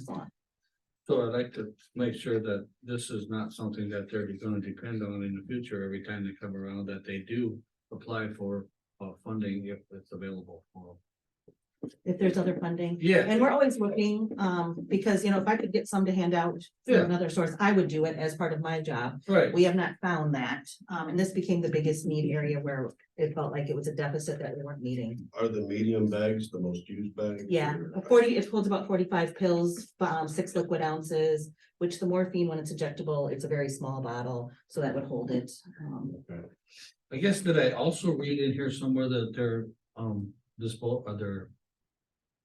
is on. So I'd like to make sure that this is not something that they're gonna depend on in the future, every time they come around, that they do apply for uh funding if it's available for them. If there's other funding. Yeah, And we're always looking, um, because, you know, if I could get some to hand out from Yeah. another source, I would do it as part of my job. right, We have not found that, um, and this became the biggest need area where it felt like it was a deficit that we weren't meeting. Are the medium bags the most used bags? Yeah, or- a forty, it holds about forty-five pills, um, six liquid ounces, which the morphine, when it's injectable, it's a very small bottle, so that would hold it. Um, Okay. I guess did I also read in here somewhere that they're um disposable, are they're,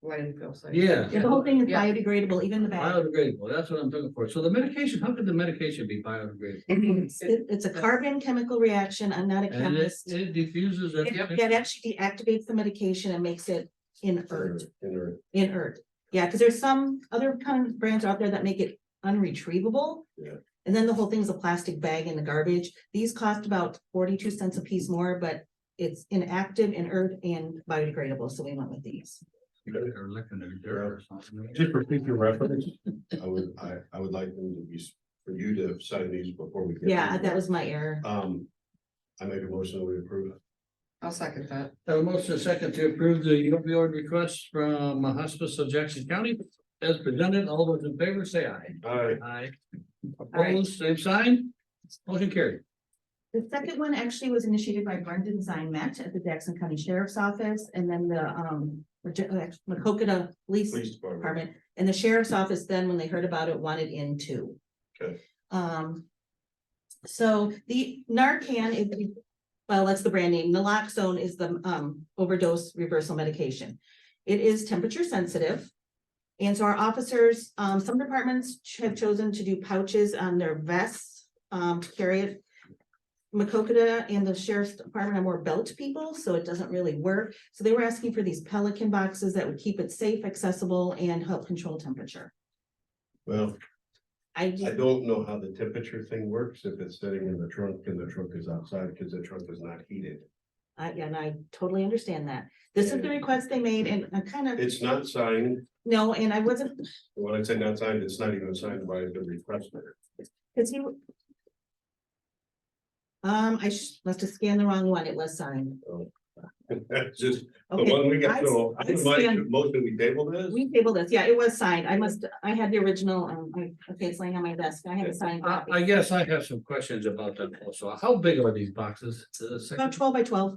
landfill site. yeah. The whole thing is Yeah. biodegradable, even the bag. Biodegradable, that's what I'm looking for, so the medication, how could the medication be biodegradable? It's it- it's a carbon chemical reaction, I'm not a And it chemist. it diffuses. that- It it actually deactivates the medication and makes it inert, Inner- inert. Yeah, because there's some other kind of brands out there that make it unretrievable. Yeah. And then the whole thing's a plastic bag in the garbage. These cost about forty-two cents a piece more, but it's inactive, inert, and biodegradable, so we went with these. They're licking their dirt or something. Just for future reference, I would, I, I would like them to be, s- for you to sign these before we. get Yeah, them. that was my error. Um, I make a motion that we approve. I'll second that. Have a motion and a second to approve the opioid request from Hospice of Jackson County as presented. All those in favor say aye. Aye. Aye. right. Opposed, same sign. Motion carried. The second one actually was initiated by Brendan Zimet at the Jackson County Sheriff's Office, and then the, um, Macokota Police Police Department. department, and the sheriff's office then, when they heard about it, wanted in too. Okay. Um. So the Narcan is, well, that's the brand name, naloxone is the um overdose reversal medication. It is temperature sensitive. And so our officers, um, some departments ch- have chosen to do pouches on their vests, um, to carry it. Macokota and the sheriff's department are more belt people, so it doesn't really work. So they were asking for these Pelican boxes that would keep it safe, accessible, and help control temperature. Well, I, I just- don't know how the temperature thing works if it's sitting in the trunk and the trunk is outside because the trunk is not heated. I, and I totally understand that. This is the request they made and I kind of, It's not signed, no, and I wasn't, when I say not signed, it's not even signed by the requester. because he um, I sh- must have scanned the wrong one. It was signed. That's just the Okay, one we I- got, so I I would like to stand- motion we table this. we tabled this. Yeah, it was signed. I must, I had the original, um, I- okay, it's laying on my desk. I had a signed I, copy. I guess I have some questions about that also. How big are these boxes? The About second- twelve by twelve.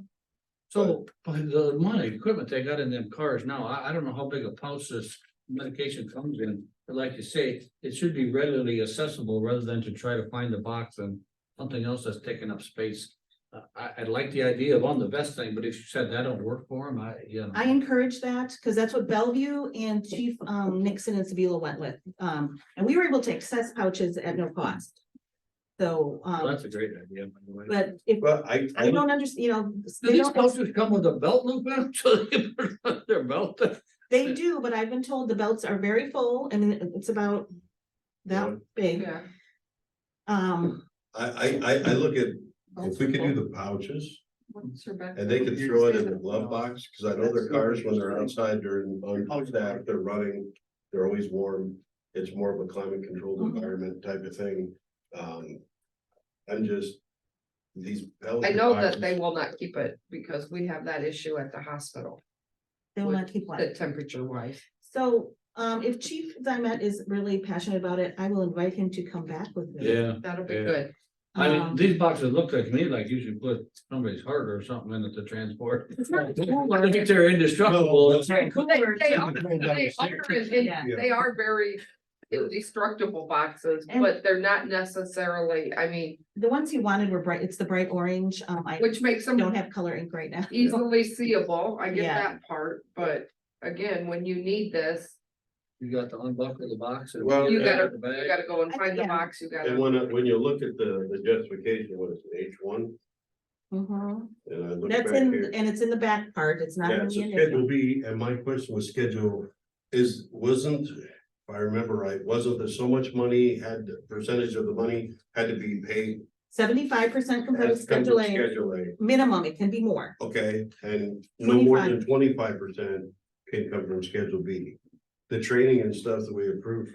So, by the money, equipment they got in them cars now, I, I don't know how big a pouch this medication comes in. But like you say, it should be readily accessible rather than to try to find the box and something else that's taking up space. Uh, I, I like the idea of on the vest thing, but if you said that don't work for them, I, you know. I encourage that, because that's what Bellevue and Chief um Nixon and Sevilla went with. Um, and we were able to access pouches at no cost. So, Well, um, That's a great idea, by the way. but if Well, I, I you would don't understand, you know, Do they these don't, pouches come with a belt loop in them? So they can put it on their belt? they do, but I've been told the belts are very full and it's about that Yeah. big. Yeah. Um, I, I, I, I look at, Oh, if we could do the pouches What's your back- and they could throw it in the glove box, cause I know their cars when they're outside during, on stack, they're running. They're always warm. It's more of a climate controlled Mhm. environment type of thing. Um, I'm just. These. I Pelican know that boxes- they will not keep it because we have that issue at the hospital, they will not keep one. the temperature wise. So, um, if Chief Zimet is really passionate about it, I will invite him to come back with me. Yeah. That'll be Yeah. good. I mean, Um, these boxes look like me, like you should put somebody's heart or something in it to transport. It's not I think they're indestructible. No, It's- They they are, Something down they the are, stairs. in- Yeah. they are very indestructible boxes, And- but they're not necessarily, I mean, The ones he wanted were bright, it's the bright orange. Um, I which makes them don't have color ink right now. easily seeable. I get Yeah. that part, but again, when you need this, You got to unbuckle the box. and Well, put it You back gotta- in the you bag. gotta go and find the Yeah. box, you And gotta. when, I- when you look at the, the justification, what is it, H one? Mhm. And I look back That's here. in, and it's in the back part, it's not Yeah, in so the Schedule initial. B, and my question was schedule is, wasn't, if I remember right, wasn't there so much money, had the percentage of the money had to be paid? Seventy-five percent compared as to compared to Schedule A, Schedule A, minimum, it can be more. okay, and no more than twenty-five percent can come from Schedule B. the training and stuff that we approved